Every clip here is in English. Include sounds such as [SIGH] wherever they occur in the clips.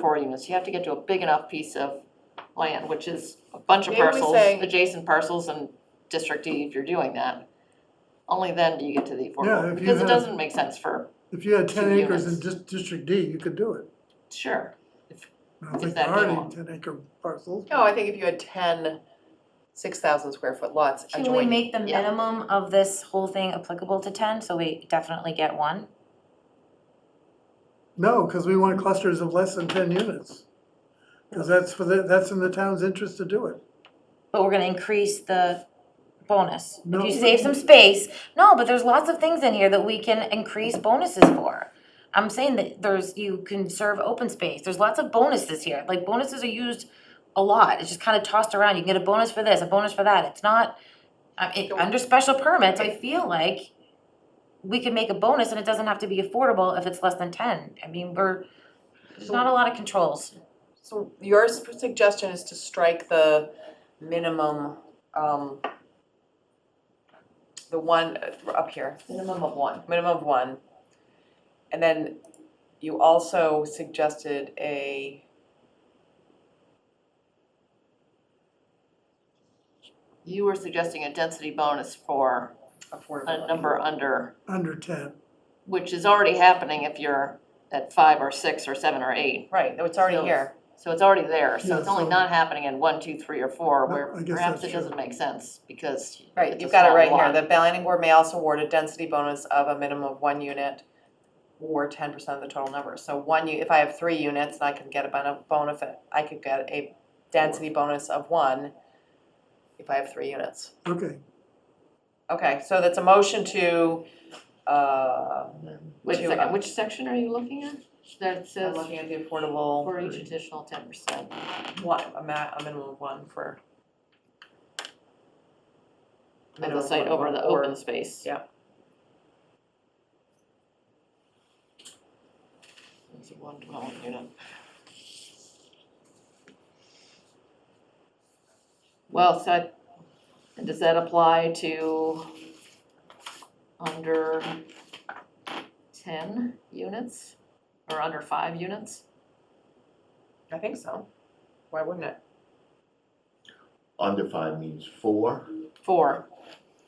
four units, you have to get to a big enough piece of land, which is a bunch of Maybe we parcels, say- adjacent parcels and District D if you're doing that. Only then do you get to the Yeah, if affordable, you because it have- doesn't make sense for, If you had ten Two acres in units. dis- District D, you could do it. sure, I don't Is think there that are doable? any ten acre parcels. No, I think if you had ten six thousand square foot lots Should we adjoining, make the yeah. minimum of this whole thing applicable to ten, so we definitely get one? No, because we want clusters of less than ten units. Because that's for the, that's in the town's interest to do it. But we're gonna increase the bonus. If No. you save some space, no, but there's lots of things in here that we can increase bonuses for. I'm saying that there's, you can serve open space, there's lots of bonuses here, like bonuses are used a lot, it's just kinda tossed around, you can get a bonus for this, a bonus for that, it's not, I it, under special permits, I feel like we can make a bonus and it doesn't have to be affordable if it's less than ten, I mean, we're, there's not a lot of controls. so your s- suggestion is to strike the minimum, um, the one uh, up here, minimum of one. minimum of one. And then you also suggested a You were suggesting a density bonus for a affordability. number under, Under ten, which is already happening if you're at five or six or seven or eight. Right, no, it's already So here. So it's already there, so Yeah, it's only so- not happening in one, two, three, or four, No, where I guess perhaps that's it doesn't true. make sense, because Right, it's you've a got it small right lot. here. The planning board may also award a density bonus of a minimum of one unit or ten percent of the total number. So one, u- if I have three units, I can get a bon- bonus, I could get a density bonus of one if I have three units. okay. Okay, so that's a motion to, uh, Which to, section, uh, which section are you looking at? um, That I'm says looking at the affordable, for each additional ten percent. one, a ma, a minimum of one for. of minimum the of site one over the or- open space. yeah. It's a one dwelling unit. Well, so, I- and does that apply to under ten units or under five units? I think so. Why wouldn't it? Under five means four, Four,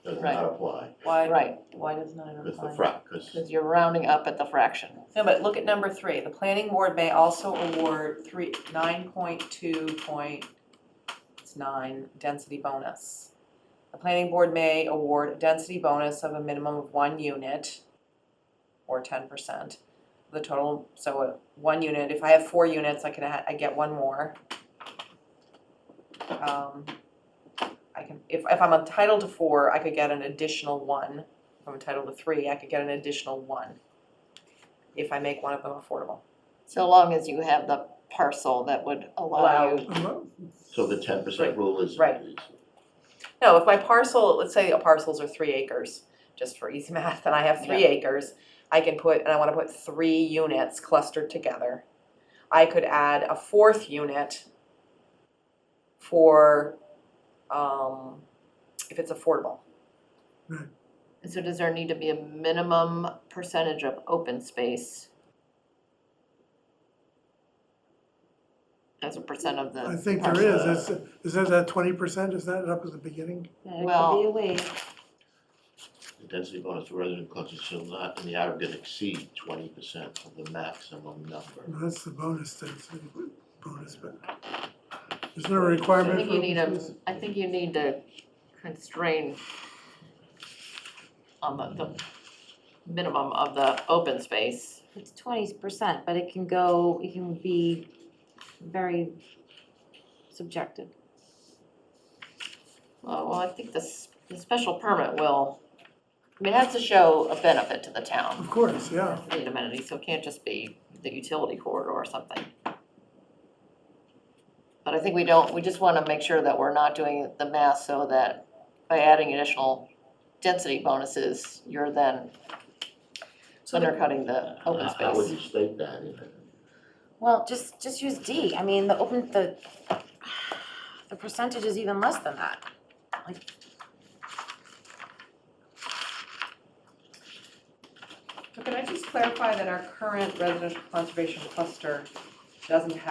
does Right. not apply, Why? right, why does not because the frac, because Because you're rounding up at the fraction. No, but look at number three, the planning board may also award three, nine point two point, it's nine, density bonus. The planning board may award a density bonus of a minimum of one unit or ten percent. The total, so uh, one unit, if I have four units, I can, ha- I get one more. Um, I can, if, if I'm entitled to four, I could get an additional one. If I'm entitled to three, I could get an additional one if I make one of them affordable. So long as you have the parcel that would allow you. I'm up. so the ten percent rule is. Right. is- No, if my parcel, let's say the parcels are three acres, just for easy [LAUGHS] math, and I have three acres, I can put, and I wanna put three units clustered together. I could add a fourth unit for, um, if it's affordable. And so does there need to be a minimum percentage of open space? As a percent of the I think there parcel. is, that's, is that that twenty percent, is that up at the beginning? Well- The density bonus for resident clusters shall not in the aggregate exceed twenty percent of the maximum number. No, That's the bonus density, bonus, but is there a requirement I for? think you need open a, space? I think you need to constrain on the, the minimum of the open space. It's twenty percent, but it can go, it can be very subjective. Well, well, I think this, the special permit will, I mean, it has to show a benefit to the town. Of course, yeah, need amenities, so it can't just be the utility corridor or something. But I think we don't, we just wanna make sure that we're not doing the math so that by adding additional density bonuses, you're then undercutting the open How- How would space. you state that in it? Well, just, just use D, I mean, the open, the, the percentage is even less than that. So can I just clarify that our current residential conservation cluster doesn't have